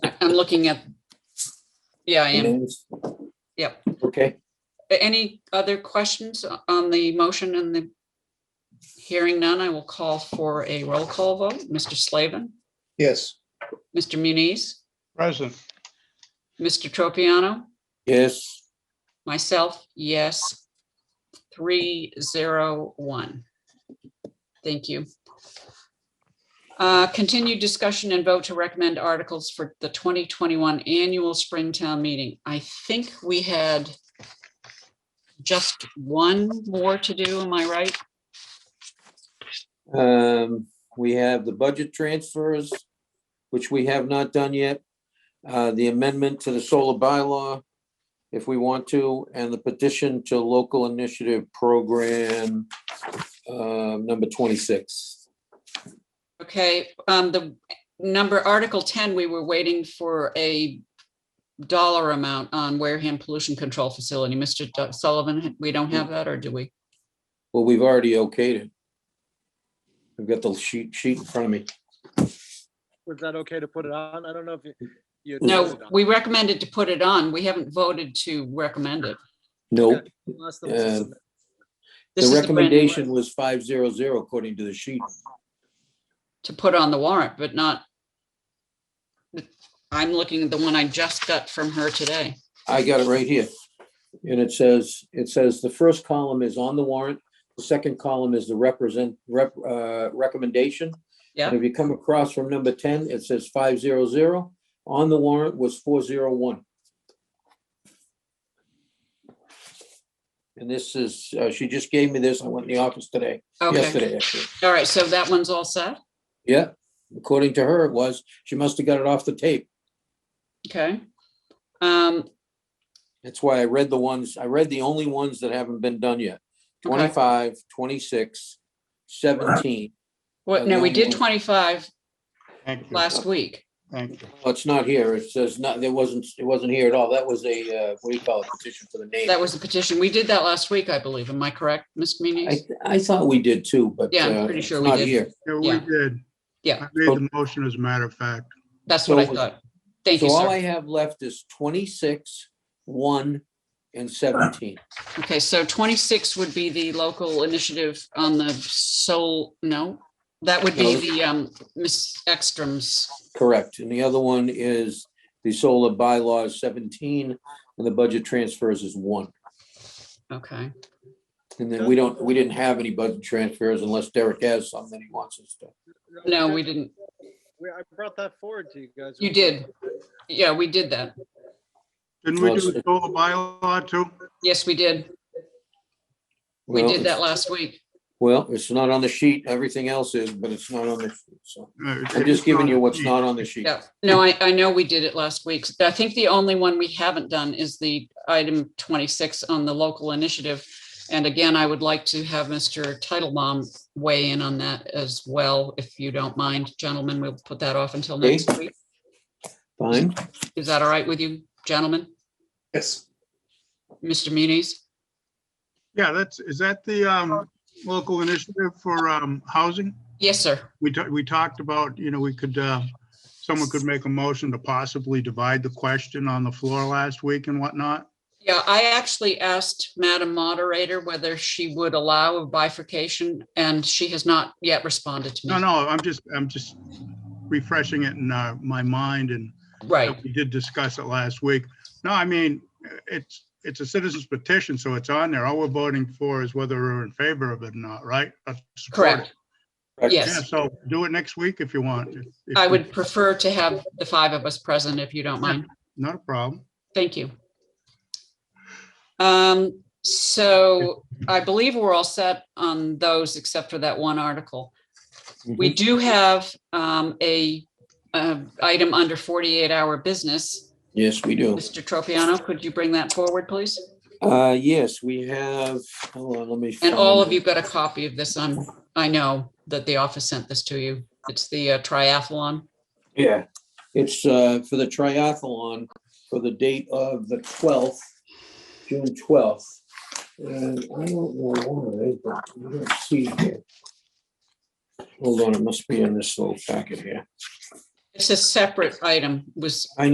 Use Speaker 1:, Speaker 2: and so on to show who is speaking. Speaker 1: I'm looking at, yeah, I am.
Speaker 2: Names?
Speaker 1: Yep.
Speaker 2: Okay,
Speaker 1: Any other questions on the motion and the hearing none, I will call for a roll call vote. Mr. Slavin,
Speaker 3: Yes.
Speaker 1: Mr. Muniz,
Speaker 4: Present.
Speaker 1: Mr. Tropiano,
Speaker 2: yes,
Speaker 1: myself, yes. Three, zero, one. Thank you. Uh, Continued discussion and vote to recommend articles for the 2021 annual Springtown meeting. I think we had just one more to do, am I right?
Speaker 2: um, we have the budget transfers, which we have not done yet. Uh, the amendment to the solar bylaw, if we want to, and the petition to local initiative program, um, number twenty-six.
Speaker 1: Okay, um, the number, Article ten, we were waiting for a dollar amount on Wareham Pollution Control Facility. Mr. Du- Sullivan, we don't have that, or do we?
Speaker 2: Well, we've already okayed it. I've got the sheet, sheet in front of me.
Speaker 5: Was that okay to put it on? I don't know if you- you. had
Speaker 1: No,
Speaker 5: voted on
Speaker 1: we recommended to put it on. We haven't voted to recommend it.
Speaker 2: Nope,
Speaker 5: it last time it was
Speaker 2: uh,
Speaker 5: submitted.
Speaker 1: This
Speaker 2: the
Speaker 1: is brand new
Speaker 2: recommendation
Speaker 1: one
Speaker 2: was five zero zero according to the sheet.
Speaker 1: To put on the warrant, but not. I'm looking at the one I just got from her today.
Speaker 2: I got it right here. And it says, it says the first column is on the warrant, the second column is the represent, rep, uh, recommendation.
Speaker 1: Yeah.
Speaker 2: And If you come across from number ten, it says five zero zero, on the warrant was four zero one. And this is, uh, she just gave me this, I went in the office today,
Speaker 1: Okay,
Speaker 2: yesterday, actually.
Speaker 1: all right, so that one's all set.
Speaker 2: Yeah, according to her, it was, she must have got it off the tape.
Speaker 1: Okay. Um,
Speaker 2: That's why I read the ones, I read the only ones that haven't been done yet.
Speaker 1: Okay.
Speaker 2: 25, 26, 17.
Speaker 1: what,
Speaker 2: And
Speaker 1: no, we
Speaker 2: then
Speaker 1: did
Speaker 2: we'll-
Speaker 1: twenty-five
Speaker 4: Thank you.
Speaker 1: last week.
Speaker 4: Thank you.
Speaker 2: Well, It's not here. It says not, there wasn't, it wasn't here at all. That was a, uh, what do you call it, petition for the name.
Speaker 1: That was the petition. We did that last week, I believe. Am I correct, Ms.
Speaker 2: I,
Speaker 1: Muniz?
Speaker 2: I thought we did too, but.
Speaker 1: Yeah, I'm
Speaker 2: uh,
Speaker 1: pretty
Speaker 2: it's
Speaker 1: sure we
Speaker 2: not
Speaker 1: did.
Speaker 2: here.
Speaker 4: Yeah, we
Speaker 1: Yeah.
Speaker 4: did.
Speaker 1: Yeah.
Speaker 4: I made the motion as a matter of fact.
Speaker 1: That's what I
Speaker 2: so-
Speaker 1: thought. Thank
Speaker 2: So
Speaker 1: you,
Speaker 2: all I
Speaker 1: sir.
Speaker 2: have left is 26, 1, and 17.
Speaker 1: Okay, so twenty-six would be the local initiative on the soul, no? That would be
Speaker 2: No.
Speaker 1: the, um, Ms. Ekstrom's.
Speaker 2: Correct. And the other one is the solar bylaws 17, and the budget transfers is 1.
Speaker 1: Okay,
Speaker 2: And then we don't, we didn't have any budget transfers unless Derek has some that he wants us to.
Speaker 1: no, we didn't.
Speaker 5: We- I brought that forward to you guys.
Speaker 1: You did. Yeah, we did that.
Speaker 4: Didn't we
Speaker 2: Well,
Speaker 4: do a
Speaker 2: it's-
Speaker 4: solar bylaw too?
Speaker 1: Yes, we did. We
Speaker 2: Well,
Speaker 1: did
Speaker 2: it's-
Speaker 1: that last week.
Speaker 2: Well, it's not on the sheet. Everything else is, but it's not on the, sheet. so
Speaker 4: Uh,
Speaker 2: I'm just giving you what's
Speaker 4: it's
Speaker 2: not on the sheet.
Speaker 1: Yeah, no, I, I know we did it last week. I think the only one we haven't done is the item twenty-six on the local initiative. And again, I would like to have Mr. Titlebaum weigh in on that as well, if you don't mind, gentlemen. We'll put that off until
Speaker 2: Okay.
Speaker 1: next week.
Speaker 2: Fine.
Speaker 1: Is that all right with you, gentlemen?
Speaker 3: Yes.
Speaker 1: Mr. Muniz?
Speaker 4: Yeah, that's, is that the um, local initiative for um, housing?
Speaker 1: Yes, sir.
Speaker 4: We talked, we talked about, you know, we could, uh, someone could make a motion to possibly divide the question on the floor last week and whatnot.
Speaker 1: Yeah, I actually asked Madam Moderator whether she would allow a bifurcation, and she has not yet responded to me.
Speaker 4: No, no, I'm just, I'm just refreshing it in uh, my mind and
Speaker 1: Right,
Speaker 4: We did discuss it last week. No, I mean, it's, it's a citizen's petition, so it's on there. All we're voting for is whether we're in favor of it or not, right? Uh, support it.
Speaker 1: correct. Yes.
Speaker 4: Yeah, so do it next week if you want. If- if
Speaker 1: I
Speaker 4: you-
Speaker 1: would prefer to have the five of us present if you don't mind.
Speaker 4: Not a problem.
Speaker 1: Thank you. Um, so I believe we're all set on those except for that one article.
Speaker 2: Mm-hmm.
Speaker 1: We do have, um, a, uh, item under forty-eight hour business.
Speaker 2: Yes, we do.
Speaker 1: Mr. Tropiano, could you bring that forward, please?
Speaker 2: Uh, yes, we have, hold on, let me.
Speaker 1: And all of
Speaker 2: find-
Speaker 1: you got a copy of this on, I know that the office sent this to you. It's the uh, triathlon.
Speaker 2: Yeah, it's, uh, for the triathlon for the date of the twelfth, June twelfth. And I don't know why, but I don't see it here. Hold on, it must be in this little packet here.
Speaker 1: It's a separate item, was